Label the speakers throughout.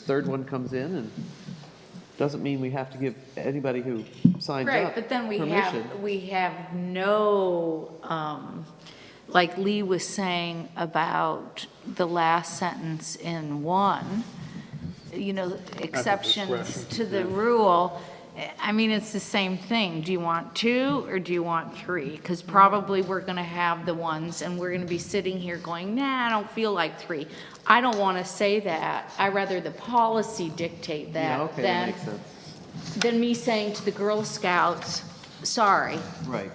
Speaker 1: third one comes in, and doesn't mean we have to give anybody who signs
Speaker 2: Right,
Speaker 1: up
Speaker 2: but then we
Speaker 1: permission.
Speaker 2: have, we have no, um, like Lee was saying about the last sentence in one, you know, exceptions to the rule. I mean, it's the same thing. Do you want two or do you want three? Because probably we're going to have the ones and we're going to be sitting here going, nah, I don't feel like three. I don't want to say that. I rather the policy dictate
Speaker 1: Yeah,
Speaker 2: that
Speaker 1: okay, that
Speaker 2: than
Speaker 1: makes sense.
Speaker 2: than me saying to the Girl Scouts, sorry.
Speaker 1: Right.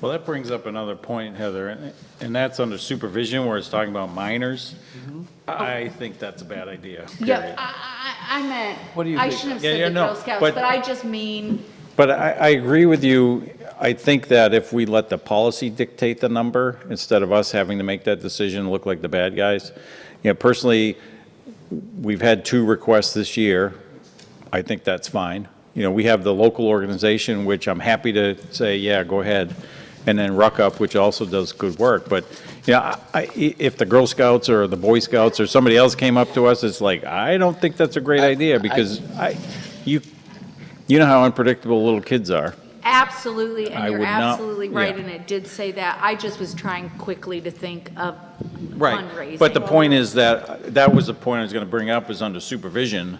Speaker 3: Well, that brings up another point, Heather, and- and that's under supervision where it's talking about minors. I think that's a bad idea,
Speaker 2: Yep,
Speaker 3: period.
Speaker 2: I, I, I meant,
Speaker 1: What do you
Speaker 2: I
Speaker 1: think?
Speaker 2: shouldn't have
Speaker 3: Yeah, yeah,
Speaker 2: said the
Speaker 3: no,
Speaker 2: Girl Scouts,
Speaker 3: but-
Speaker 2: but I just mean,
Speaker 3: But I, I agree with you. I think that if we let the policy dictate the number, instead of us having to make that decision, look like the bad guys. You know, personally, we've had two requests this year. I think that's fine. You know, we have the local organization, which I'm happy to say, yeah, go ahead. And then Ruck Up, which also does good work. But, you know, I- I, if the Girl Scouts or the Boy Scouts or somebody else came up to us, it's like, I don't think that's a great idea because I, you, you know how unpredictable little kids are.
Speaker 2: absolutely,
Speaker 3: I
Speaker 2: and you're
Speaker 3: would not-
Speaker 2: absolutely right,
Speaker 3: yeah.
Speaker 2: and it did say that. I just was trying quickly to think of fundraising.
Speaker 3: But the point is that, that was the point I was going to bring up, is under supervision,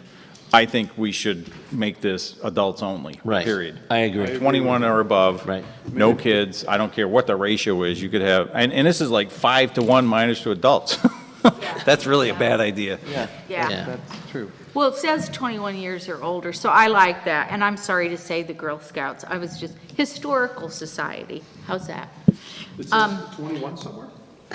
Speaker 3: I think we should make this adults only,
Speaker 4: Right.
Speaker 3: period.
Speaker 4: I agree.
Speaker 3: 21 or above.
Speaker 4: Right.
Speaker 3: No kids, I don't care what the ratio is, you could have, and, and this is like five to one minus to adults. That's really a bad idea.
Speaker 1: Yeah.
Speaker 2: Yeah.
Speaker 1: that- That's true.
Speaker 2: Well, it says 21 years or older, so I like that, and I'm sorry to say the Girl Scouts. I was just, Historical Society, how's that?
Speaker 5: It says
Speaker 2: Um,
Speaker 5: 21 somewhere,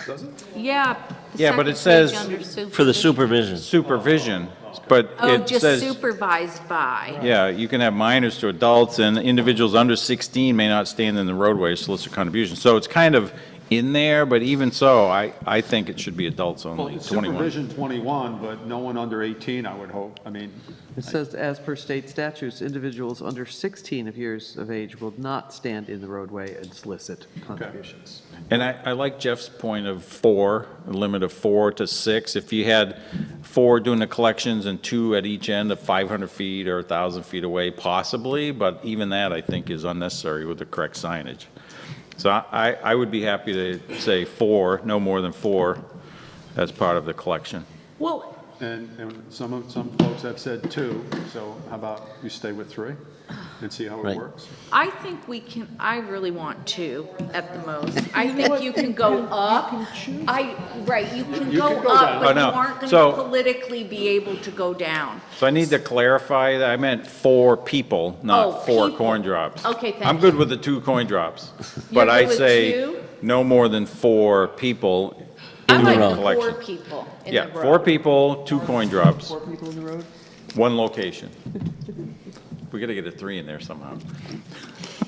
Speaker 5: does it?
Speaker 2: Yeah. the
Speaker 3: Yeah, but it
Speaker 2: second page
Speaker 3: says-
Speaker 2: under
Speaker 4: For the
Speaker 2: supervision.
Speaker 4: supervision.
Speaker 3: Supervision, but
Speaker 2: Oh,
Speaker 3: it
Speaker 2: just
Speaker 3: says,
Speaker 2: supervised by.
Speaker 3: yeah, you can have minors to adults, and individuals under 16 may not stand in the roadway, to solicit contributions. So it's kind of in there, but even so, I, I think it should be adults
Speaker 5: Well,
Speaker 3: only,
Speaker 5: it's
Speaker 3: 21.
Speaker 5: supervision 21, but no one under 18, I would hope. I mean,
Speaker 1: It says, as per state statutes, individuals under 16 of years of age will not stand in the roadway and solicit contributions.
Speaker 3: And I, I like Jeff's point of four, a limit of four to six. If you had four doing the collections and two at each end of 500 feet or 1,000 feet away, possibly, but even that, I think, is unnecessary with the correct signage. So I, I I would be happy to say four, no more than four, as part of the collection.
Speaker 2: Well,
Speaker 5: and, and some of, some folks have said two, so how about you stay with three and see how it
Speaker 4: Right.
Speaker 5: works?
Speaker 2: I think we can, I really want two at the most. I think you can go up. I, right, you can
Speaker 5: You
Speaker 2: go
Speaker 5: can go
Speaker 2: up,
Speaker 5: down.
Speaker 2: but
Speaker 3: Oh,
Speaker 2: you
Speaker 3: no.
Speaker 2: aren't gonna
Speaker 3: So-
Speaker 2: politically be able to go down.
Speaker 3: So I need to clarify that I meant four
Speaker 2: Oh,
Speaker 3: people, not four
Speaker 2: people.
Speaker 3: coin drops.
Speaker 2: Okay, thank
Speaker 3: I'm good with the two coin drops, but
Speaker 2: good
Speaker 3: I
Speaker 2: with
Speaker 3: say
Speaker 2: two?
Speaker 3: no more than four people
Speaker 2: I
Speaker 3: in the
Speaker 2: like the four
Speaker 3: collection.
Speaker 2: people in the
Speaker 3: Yeah,
Speaker 2: row.
Speaker 3: four people, two coin drops,
Speaker 1: Four people in the road?
Speaker 3: one location. We gotta get a three in there somehow.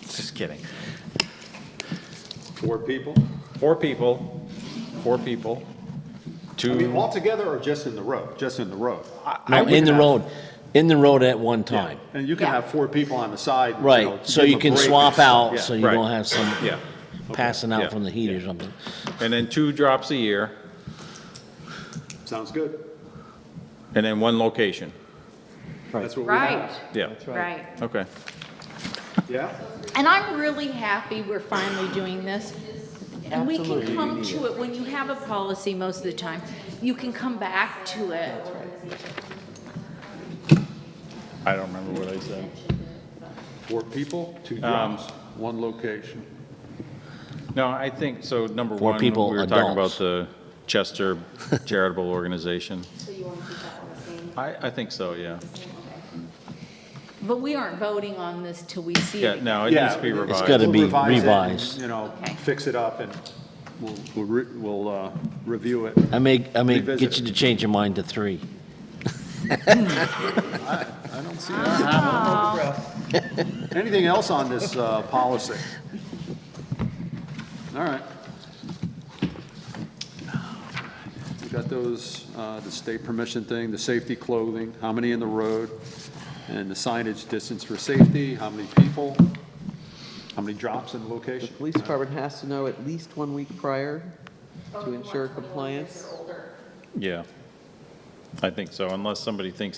Speaker 3: Just kidding.
Speaker 5: Four people?
Speaker 3: Four people, four people,
Speaker 5: I mean,
Speaker 3: two,
Speaker 5: altogether or just in the road? Just in the road?
Speaker 4: No, in the road, in the road at one time.
Speaker 5: And you can
Speaker 2: Yeah.
Speaker 5: have four people on the side. you know,
Speaker 4: Right, so
Speaker 5: give
Speaker 4: you
Speaker 5: a
Speaker 4: can
Speaker 5: break or
Speaker 4: swap
Speaker 5: something.
Speaker 4: out,
Speaker 5: Yeah.
Speaker 4: so you
Speaker 3: Right.
Speaker 4: don't have some
Speaker 3: yeah.
Speaker 4: passing
Speaker 3: Yeah.
Speaker 4: out from the heat or something.
Speaker 3: And then two drops a year,
Speaker 5: Sounds good.
Speaker 3: and then one location.
Speaker 5: That's what we
Speaker 2: Right,
Speaker 5: have.
Speaker 3: Yeah,
Speaker 2: right.
Speaker 3: okay.
Speaker 5: Yeah?
Speaker 2: And I'm really happy we're finally doing this. And we can
Speaker 1: Absolutely,
Speaker 2: come to it, when you have a policy most of the time, you can come back to it.
Speaker 3: I don't remember what I said.
Speaker 5: Four people, two drums, one location.
Speaker 3: No, I think, so number
Speaker 4: Four
Speaker 3: one, we
Speaker 4: people,
Speaker 3: were talking about
Speaker 4: adults.
Speaker 3: the Chester charitable organization. I, I think so, yeah.
Speaker 2: But we aren't voting on this till we see
Speaker 3: Yeah,
Speaker 2: it.
Speaker 3: no, it needs to be
Speaker 5: Yeah,
Speaker 3: revised.
Speaker 4: It's gotta
Speaker 5: We'll
Speaker 4: be
Speaker 5: revise it,
Speaker 4: revised.
Speaker 5: You know,
Speaker 2: Okay.
Speaker 5: fix it up and we'll, we'll, re- we'll uh, review it.
Speaker 4: I may, I may
Speaker 5: Revisit
Speaker 4: get you
Speaker 5: it.
Speaker 4: to change your mind to three.
Speaker 5: I don't see that. Anything else on this uh, policy? All right. We got those, uh, the state permission thing, the safety clothing, how many in the road, and the signage distance for safety, how many people, how many drops in
Speaker 1: The
Speaker 5: location.
Speaker 1: police department has to know at least one week prior to ensure compliance.
Speaker 3: Yeah. I think so, unless somebody thinks